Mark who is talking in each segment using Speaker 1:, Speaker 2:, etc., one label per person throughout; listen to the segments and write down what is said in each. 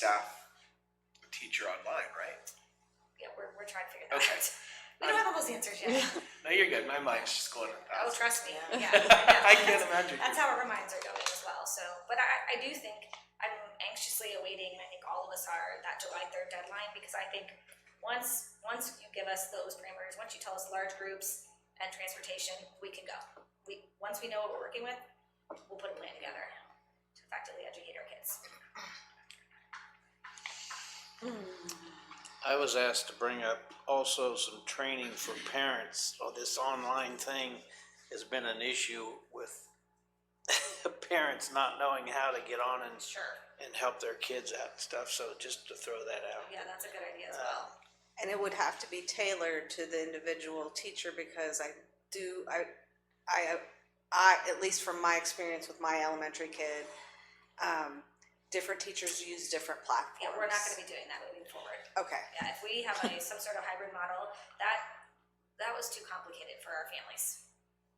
Speaker 1: staff a teacher online, right?
Speaker 2: Yeah, we're, we're trying to figure that
Speaker 1: Okay.
Speaker 2: out. We don't have all those answers yet.
Speaker 1: No, you're good. My mind's just going a
Speaker 2: Oh,
Speaker 1: thousand.
Speaker 2: trust me.
Speaker 3: Yeah.
Speaker 2: Yeah.
Speaker 1: I
Speaker 2: I know.
Speaker 1: can't imagine.
Speaker 2: That's how our reminds are going as well. So, but I, I do think I'm anxiously awaiting, I think all of us are, that July 3rd deadline because I think once once you give us those parameters, once you tell us large groups and transportation, we can go. We Once we know what we're working with, we'll put a plan together to effectively educate our kids.
Speaker 4: I was asked to bring up also some training for parents, or this online thing has been an issue with parents not knowing how to get on and,
Speaker 2: Sure.
Speaker 4: and help their kids out and stuff, so just to throw that out.
Speaker 2: Yeah, that's a good idea as well.
Speaker 3: And it would have to be tailored to the individual teacher because I do, I, I, I, at least from my experience with my elementary kid, um, different teachers use different platforms.
Speaker 2: Yeah, we're not gonna be doing that moving forward.
Speaker 3: Okay,
Speaker 2: Yeah, if we have a, some sort of hybrid model, that, that was too complicated for our families.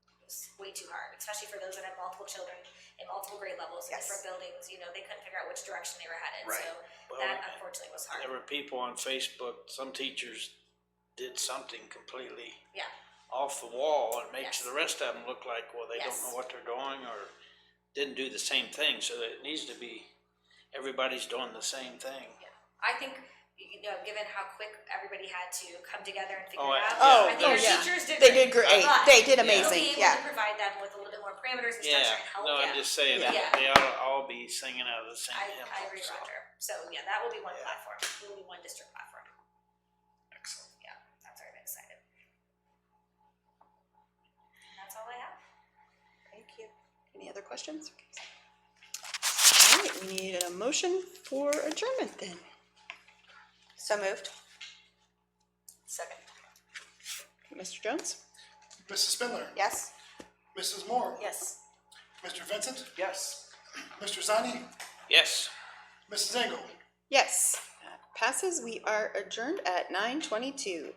Speaker 2: It was way too hard, especially for those that have multiple children in multiple grade levels in
Speaker 3: Yes.
Speaker 2: different buildings, you know, they couldn't figure out which direction they were headed,
Speaker 1: Right.
Speaker 2: so
Speaker 4: Well,
Speaker 2: that unfortunately was hard.
Speaker 4: There were people on Facebook, some teachers did something completely
Speaker 2: Yeah.
Speaker 4: off the wall and
Speaker 2: Yes.
Speaker 4: makes the rest of them look like, well, they don't
Speaker 2: Yes.
Speaker 4: know what they're doing or didn't do the same thing, so it needs to be, everybody's doing the same thing.
Speaker 2: I think, you know, given how quick everybody had to come together and figure it
Speaker 4: Oh,
Speaker 2: out,
Speaker 4: I- yeah.
Speaker 2: I think
Speaker 4: Oh,
Speaker 2: our
Speaker 4: yeah.
Speaker 2: teachers did
Speaker 5: They
Speaker 2: great.
Speaker 5: did great.
Speaker 2: But
Speaker 5: They did
Speaker 2: we'll be
Speaker 5: amazing.
Speaker 2: able
Speaker 5: Yeah.
Speaker 2: to Provide them with a little bit more parameters and
Speaker 4: Yeah,
Speaker 2: structure and help them.
Speaker 4: no, I'm just saying, they
Speaker 2: Yeah.
Speaker 4: they ought to all be singing out of the same
Speaker 2: I,
Speaker 4: hymn.
Speaker 2: I agree,
Speaker 4: so.
Speaker 2: Roger. So, yeah, that will be one
Speaker 4: Yeah.
Speaker 2: platform, will be one district platform.
Speaker 1: Excellent.
Speaker 2: Yeah, that's already excited. And That's all I have.
Speaker 3: thank you.
Speaker 5: Any other questions? All right, we need a motion for adjournment then.
Speaker 3: So moved?
Speaker 5: Second. Mr. Jones?
Speaker 6: Mrs. Spindler?
Speaker 3: Yes?
Speaker 6: Mrs. Moore?
Speaker 5: Yes.
Speaker 6: Mr. Vincent?
Speaker 1: Yes.
Speaker 6: Mr. Zani?
Speaker 4: Yes.
Speaker 6: Mrs. Engel?
Speaker 5: Yes. That Passes, we are adjourned at nine twenty-two.